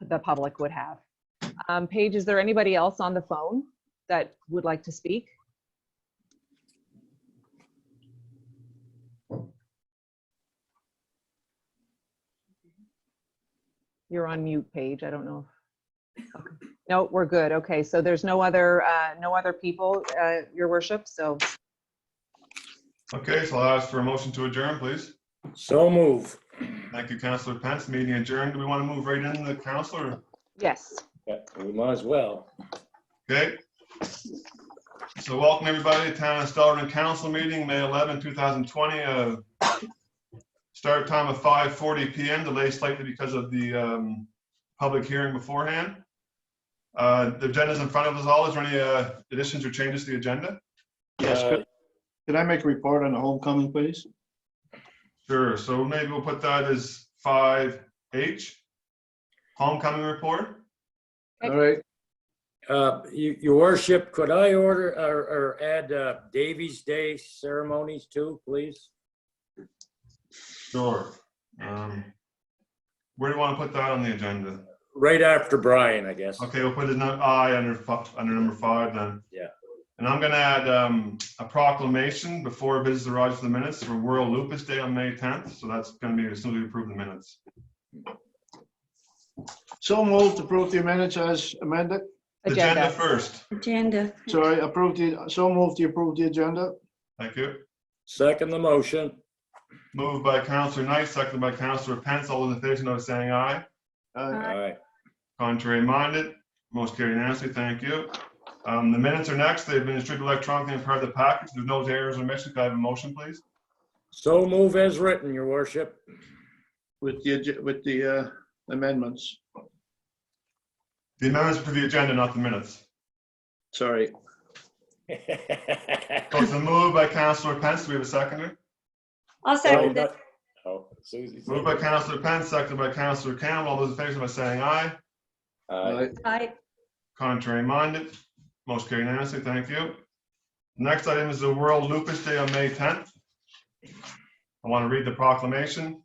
the public would have. Um, Paige, is there anybody else on the phone that would like to speak? You're on mute, Paige. I don't know. if- okay. No, we're good. Okay, so there's no other, uh, no other people, uh, your worship, so Okay, so I'll ask for a motion to adjourn, please. So move. Thank you, Counselor Pence. Meeting adjourned. Do we want to move right into the counselor? yes. Yeah, We might as well. Okay. So welcome everybody to Town of Stellarton Council Meeting, May 11, 2020. uh, Start time of 5:40 PM, delayed slightly because of the um, public hearing beforehand. Uh, The agenda's in front of us all. Is there any uh, additions or changes to the agenda? Yes, Uh, could, could I make a report on the homecoming, please? Sure, so maybe we'll put that as 5H. Homecoming report? Okay. All right, uh, you- Your worship, could I order or or add uh, Davies Day ceremonies too, please? Sure. Um, Where do you want to put that on the agenda? Right after Brian, I guess. Okay, we'll put his num- I under, fi- under number five then. Yeah. And I'm gonna add um, a proclamation before Visitor Rogers to the minutes for World Lupus Day on May 10th. So that's gonna be as soon as we approve the minutes. so moved to approve the minutes as amended. Agenda first. Agenda. Sorry, approve the, so moved to approve the agenda. Thank you. Second the motion. Moved by Counselor Knight, seconded by Counselor Pence. All those in favor, signify by saying aye. Uh, All right. Contrary minded, most carried unanimously. Thank you. Um, The minutes are next. They've been distributed electronically and part of the package. There's no errors or omissions. Could I have a motion, please? So move as written, your worship. With the, ag- with the uh, amendments, The amendments to the agenda, not the minutes. sorry. So it's a move by Counselor Pence. Do we have a seconder? I'll second it. Oh, Susie. Moved by Counselor Pence, seconded by Counselor Campbell. All those in favor, signify by saying aye. Aye. Aye. Contrary minded, most carried unanimously. Thank you. Next item is the World Lupus Day on May 10th. I want to read the proclamation.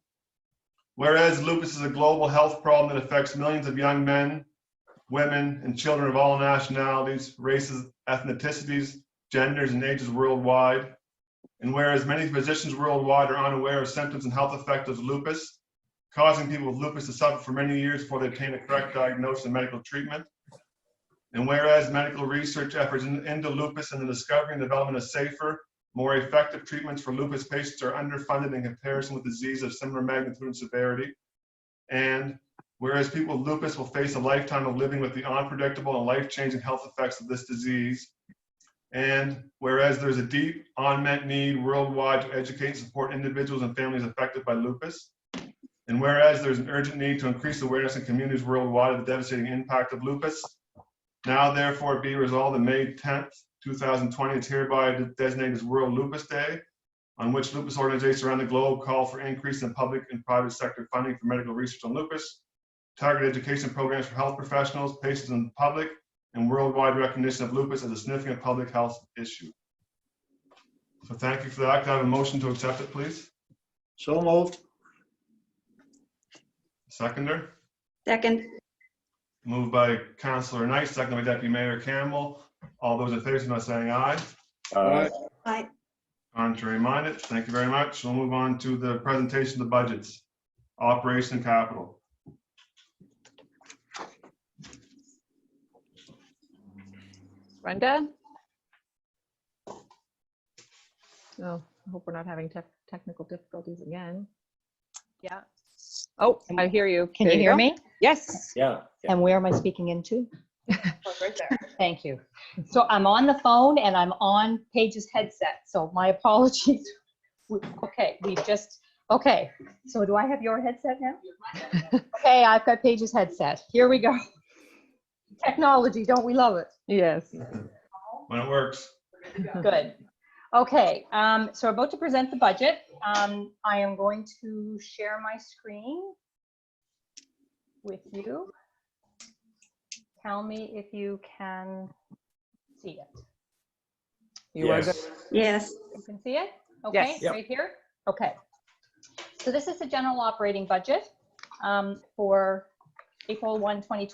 Whereas lupus is a global health problem that affects millions of young men, women, and children of all nationalities, races, ethnicities, genders, and ages worldwide. And whereas many physicians worldwide are unaware of symptoms and health effects of lupus, causing people with lupus to suffer for many years before they obtain a correct diagnosis and medical treatment. And whereas medical research efforts in- into lupus and the discovery and development of safer, more effective treatments for lupus patients are underfunded in comparison with disease of similar magnitude and severity. And whereas people with lupus will face a lifetime of living with the unpredictable and life-changing health effects of this disease. And whereas there's a deep unmet need worldwide to educate and support individuals and families affected by lupus. And whereas there's an urgent need to increase awareness in communities worldwide of the devastating impact of lupus. Now therefore be resolved that May tenth, two thousand twenty is hereby designated as World Lupus Day, on which lupus organizations around the globe call for increase in public and private sector funding for medical research on lupus, targeted education programs for health professionals, patients and the public, and worldwide recognition of lupus as a significant public health issue. So thank you for that. Could I have a motion to accept it, please? So moved. Seconder? Second. Moved by Councillor Knight, seconded by Deputy Mayor Campbell. All those in favor, signify by saying aye. Aye. Aye. Contrary minded, thank you very much. We'll move on to the presentation of the budgets, operation and capital. Brenda? Oh, I hope we're not having tech, technical difficulties again. Yeah. Oh, I hear you. Can There you hear go. me? Yes. Yeah. And where am I speaking into? Right there. Thank you. So I'm on the phone and I'm on Paige's headset, so my apologies. We- Okay, we just, okay, so do I have your headset now? Okay, I've got Paige's headset. Here we go. Technology, don't we love it? Yes. When it works, Good. Okay, um, so we're about to present the budget. Um, I am going to share my screen with you. Tell me if you can see it. You are good. Yes. Yes. You can see it? Okay, Yes. Yep. right here? Okay. So this is the general operating budget um, for April 1, 2020.